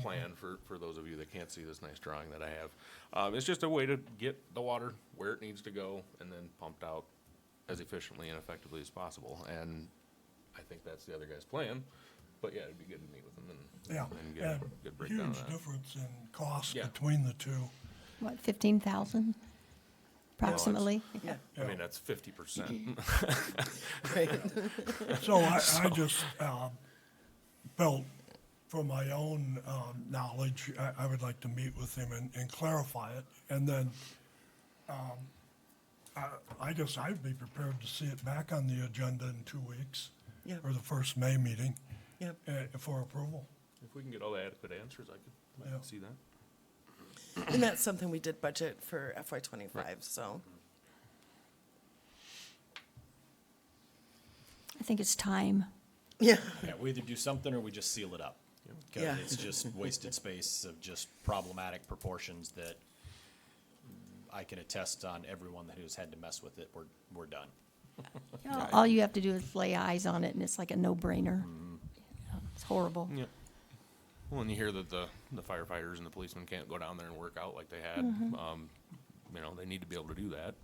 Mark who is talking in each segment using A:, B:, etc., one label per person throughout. A: plan for, for those of you that can't see this nice drawing that I have. Um, it's just a way to get the water where it needs to go and then pumped out as efficiently and effectively as possible. And I think that's the other guy's plan, but yeah, it'd be good to meet with him and.
B: Yeah,
A: And get, a
B: and
A: good breakdown
B: huge
A: of that.
B: difference in cost
A: Yeah.
B: between the two.
C: What, 15,000 approximately? Yeah.
A: I mean, that's fifty percent.
B: So I, I just, um, felt from my own, um, knowledge, I, I would like to meet with him and, and clarify it. And then, um, I, I guess I'd be prepared to see it back on the agenda in two weeks.
D: Yeah.
B: Or the first May meeting,
D: Yep.
B: uh, for approval.
A: If we can get all the adequate answers, I could, I
B: Yeah.
A: could see that.
D: And that's something we did budget for FY twenty-five, so.
C: I think it's time.
D: Yeah.
E: Yeah, we either do something or we just seal it up. 'Cause
D: Yeah.
E: it's just wasted space of just problematic proportions that I can attest on everyone that has had to mess with it, we're, we're done.
C: You know, All you have to do is lay eyes on it, and it's like a no-brainer. It's horrible.
A: Yeah. Well, and you hear that the, the firefighters and the policemen can't go down there and work out like they had. Um, you know, they need to be able to do that,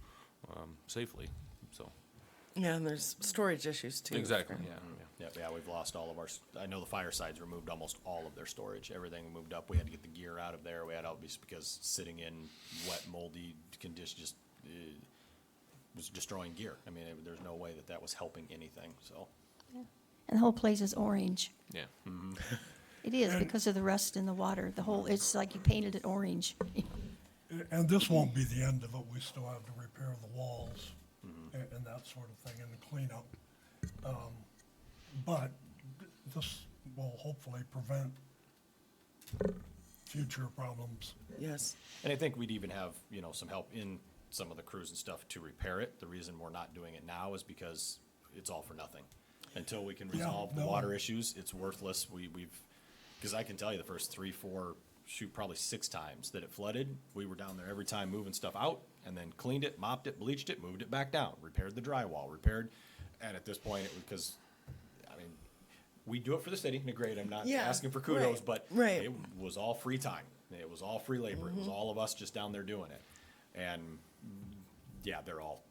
A: um, safely, so.
D: Yeah, and there's storage issues too.
A: Exactly, yeah,
E: Yeah, yeah, we've lost all of our, s- I know the firesides removed almost all of their storage, everything moved up, we had to get the gear out of there, we had, all these- because sitting in wet moldy condition just, uh, was destroying gear. I mean, it- there's no way that that was helping anything, so.
C: And the whole place is orange.
A: yeah, yeah.
C: It is because of the rust in the water. The whole, it's like you painted it orange.
B: And this won't be the end of it, we still have to repair the walls and, and that sort of thing and the cleanup. Um, But this will hopefully prevent future problems.
D: Yes.
E: And I think we'd even have, you know, some help in some of the crews and stuff to repair it. The reason we're not doing it now is because it's all for nothing. Until we can
B: Yeah,
E: resolve the
B: no.
E: water issues, it's worthless. We, we've, because I can tell you the first three, four, shoot, probably six times that it flooded, we were down there every time moving stuff out and then cleaned it, mopped it, bleached it, moved it back down, repaired the drywall, repaired. And at this point, it was because, I mean, we do it for the city, and great, I'm not
D: Yeah,
E: asking for kudos,
D: right,
E: but
D: right. Mm-hmm.
E: it was all free time. It was all free labor. It was all of us just down there doing it. And yeah, they're all,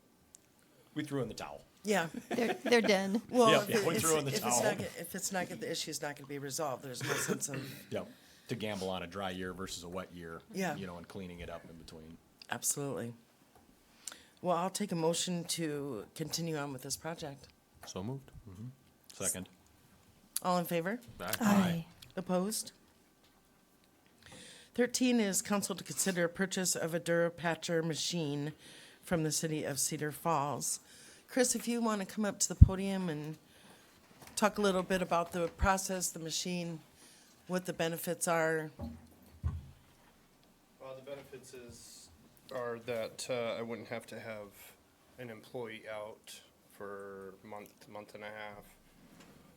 E: we threw in the towel.
D: Yeah.
C: They're, they're done.
E: Yeah,
D: Well, if
E: yeah,
D: it-
E: we
D: if
E: threw in the
D: if it's
E: towel.
D: not, get- if it's not, get- the issue's not gonna be resolved, there's no sense of,
E: Yep. To gamble on a dry year versus a wet year.
D: Yeah.
E: You know, and cleaning it up in between.
D: absolutely. Well, I'll take a motion to continue on with this project.
A: So moved.
E: Second.
D: All in favor?
E: Uh,
C: Aye.
D: Opposed? Thirteen is council to consider purchase of a Durapatcher machine from the city of Cedar Falls. Chris, if you want to come up to the podium and talk a little bit about the process, the machine, what the benefits are.
F: Uh, the benefits is, are that, uh, I wouldn't have to have an employee out for month, month and a half,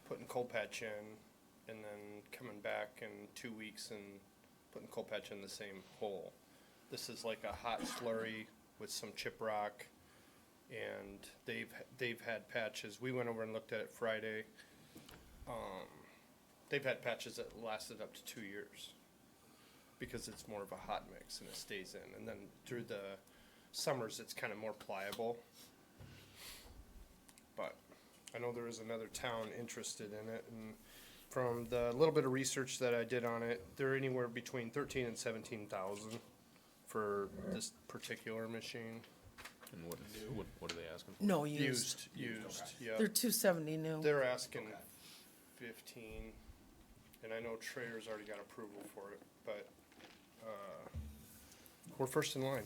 F: putting coal patch in, and then coming back in two weeks and putting coal patch in the same hole. This is like a hot slurry with some chip rock, and they've, they've had patches, we went over and looked at it Friday. Um, they've had patches that lasted up to two years because it's more of a hot mix and it stays in. And then through the summers, it's kind of more pliable. But I know there is another town interested in it, and from the little bit of research that I did on it, they're anywhere between thirteen and seventeen thousand for this particular machine.
A: And what, what, what are they asking?
D: No, used.
F: Used, used, yeah.
D: They're two seventy new.
F: They're asking fifteen, and I know Traeger's already got approval for it, but, uh, we're first in line.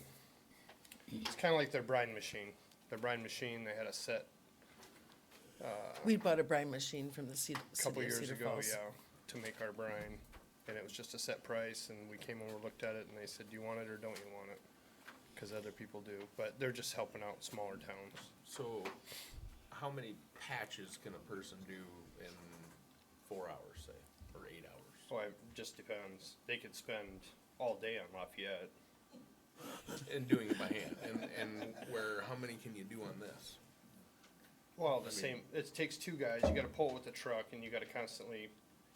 F: It's kinda like their brine machine. Their brine machine, they had a set
D: We bought a brine machine from the Cedar,
F: a couple
D: city of
F: years
D: Cedar
F: ago,
D: Falls.
F: yeah, to make our brine. And it was just a set price, and we came over, looked at it, and they said, do you want it or don't you want it? Cause other people do, but they're just helping out smaller towns.
A: So, how many patches can a person do in four hours, say, or eight hours?
F: So it just depends. They could spend all day on Lafayette.
A: And doing it by hand, and, and where, how many can you do on this?
F: Well, the same, it takes two guys, you gotta pull it with the truck, and you gotta constantly,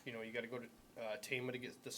F: you know, you gotta go to, uh, Tama to get the